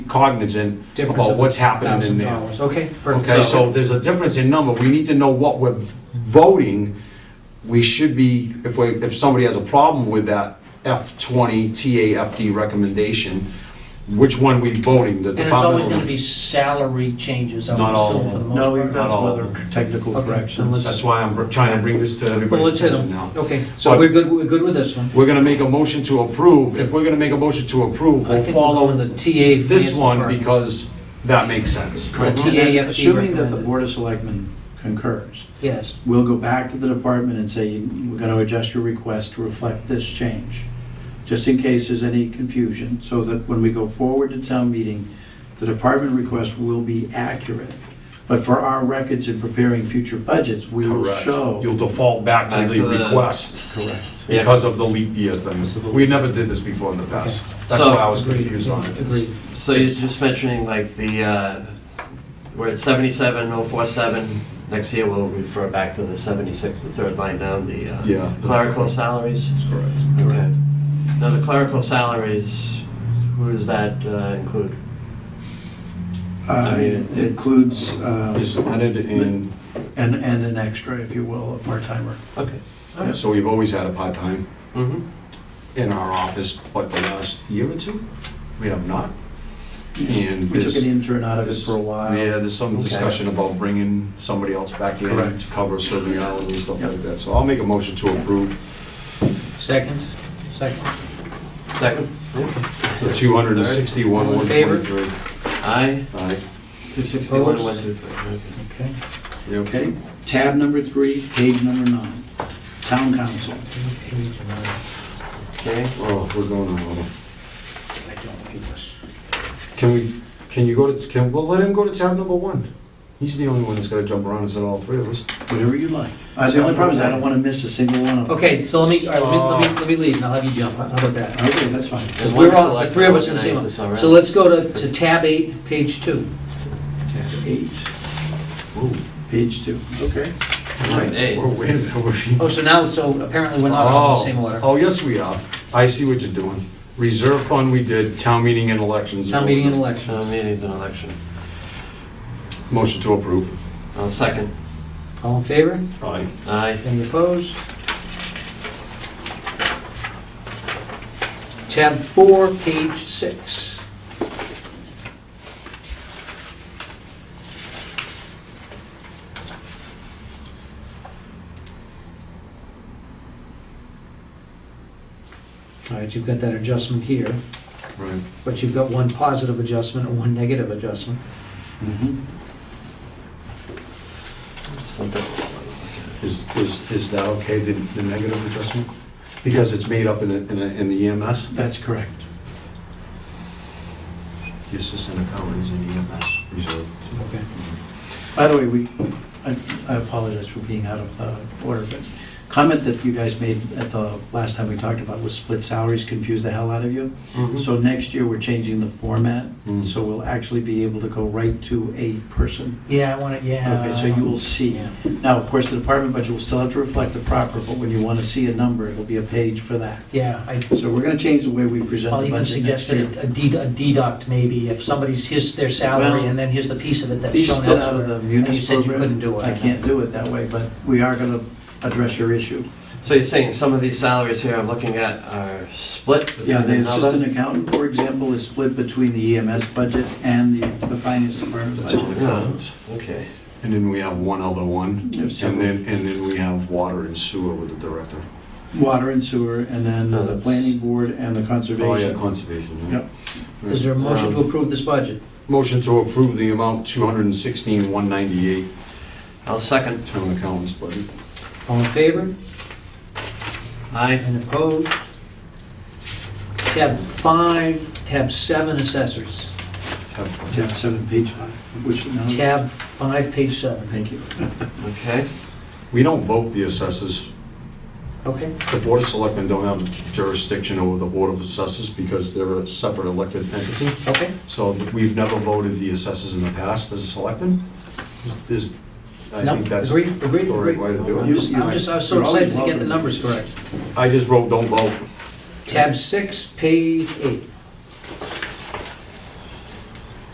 cognizant Difference about of what's happening in thousand there. dollars. Okay, perfect. Okay, so there's a difference in number, we need to know what we're voting. We should be, if we, if somebody has a problem with that F twenty TAFD recommendation, which one we voting, the And it's always gonna department? be salary changes, I Not would all of assume, for the them. most part. No, we've got some all. other technical Okay, then corrections. That's why I'm br- trying to bring this to Well, let's everybody's hit attention them. now. Okay, so But- we're good, we're good with this one. We're gonna make a motion to approve, if we're gonna make a motion to approve, I we'll think we'll go in follow the TA. this finance one department. because that makes sense. Correct. And then, TAFD Assuming that the recommended. Board of Selectmen concurs, Yes, we'll go back to the department and say, "You- we're going to adjust your request to reflect this change, just in case there's any confusion, so that when we go forward to town meeting, the department request will be accurate. But for our records in preparing future budgets, we will Correct. show. You'll default back to Back the to the- request Correct. Yeah. because of the leap year thing. We never did this before in the past. That's So- why I was confused on it. agreed. So you're just mentioning like the, uh, we're at 77,047, next year we'll refer back to the 76, the third line down, the uh, Yeah. clerical salaries? That's correct. Okay. Now, the clerical salaries, who does that uh, include? Uh, It includes, uh, It's added in, and, and an extra, if you will, a part-timer. Okay. so we've always had a part-time Mm-hmm. in our office, but the last year or two, we have not. And We took this- an intern out of it this- for a while. Yeah, there's some Okay. discussion about bringing somebody else back in Correct. to cover certain hours and stuff Yep. like that. So I'll make a motion to approve Second, second. Second? the 261, All in favor? 123. Aye, Aye. 261, Opposed? 123. Okay. Okay. Yep. Okay, tab number three, page number nine, town council. Page nine. Okay. Oh, we're going on, hold on. I don't do this. Can we, can you go to, can, well, let him go to tab number one. He's the only one that's gonna jump around instead of all three of us. Whatever you like. Uh, The only problem is I don't want to miss a single one of them. Okay, so let me, all right, let me, let me, let me leave, and I'll have you jump, how about that? Okay, that's fine. Because And one we're all, the select three of us in the same organized one. this already. So let's go to, to tab eight, page two. Tab eight, Ooh, page two, okay. Alright, eight. We're way, we're. Oh, so now, so apparently we're not all in the same Oh, order. Oh, yes, we are. I see what you're doing. Reserve fund we did, town meeting and elections. Town meeting and election. Town meeting's an election. Motion to approve. I'll second. All in favor? Aye. Aye. Any opposed? Tab four, page six. All right, you've got that adjustment here, Right. but you've got one positive adjustment and one negative adjustment. Mhm. Something- Mm-hmm. Is, is, is that okay, the, the negative adjustment? Because it's made up in, a- in, a- in the E EMS? That's correct. The assistant accountant is in EMS reserve. Okay. By the way, we, I I apologize for being out of uh, order, but comment that you guys made at the last time we talked about was split salaries confused the hell out of you. Mhm. So next year, we're changing the format, Mm. so we'll actually be able to go right to a person. Yeah, I want to, yeah. Okay, so you will see. Yeah. Now, of course, the department budget will still have to reflect the proper, but when you want to see a number, it'll be a page for that. Yeah, I, So we're going to change the way we present I'll the even budget next suggest year. that a de- a deduct maybe, if somebody's, here's their salary, Well, and then here's the piece of it that's These shown split out of the elsewhere. munis You said you program. couldn't do it. I can't do it that way, but we are going to address your issue. So you're saying some of these salaries here I'm looking at are split? between Yeah, the another? assistant accountant, for example, is split between the EMS budget and the, the finance department That's all budget. it counts. Okay. And then we have one other Mm-hmm. one, There's and several. then, and then we have water and sewer with the director. Water and sewer, and then No, the that's- planning board and the Oh, yeah, conservation. conservation. yeah. Yep. Right. Is there a motion to Um, approve this budget? Motion to approve the amount two hundred and sixteen, one ninety-eight, I'll second. town accountant's budget. All in favor? Aye. And opposed? Tab five, tab seven, assessors. Tab five. Tab seven, page five, which, no, Tab five, page seven. thank you. Okay. We don't vote the assessors. Okay, The board of selectmen don't have jurisdiction over the board of assessors because they're a separate elected entity. okay. So we've never voted the assessors in the past as a selectman. Is, I No, think that's the agreed, agreed, right agreed. way to I'm do it. just, I'm just, I was so You're always excited to get the welcome. numbers correct. I just wrote don't vote. Tab six, page eight.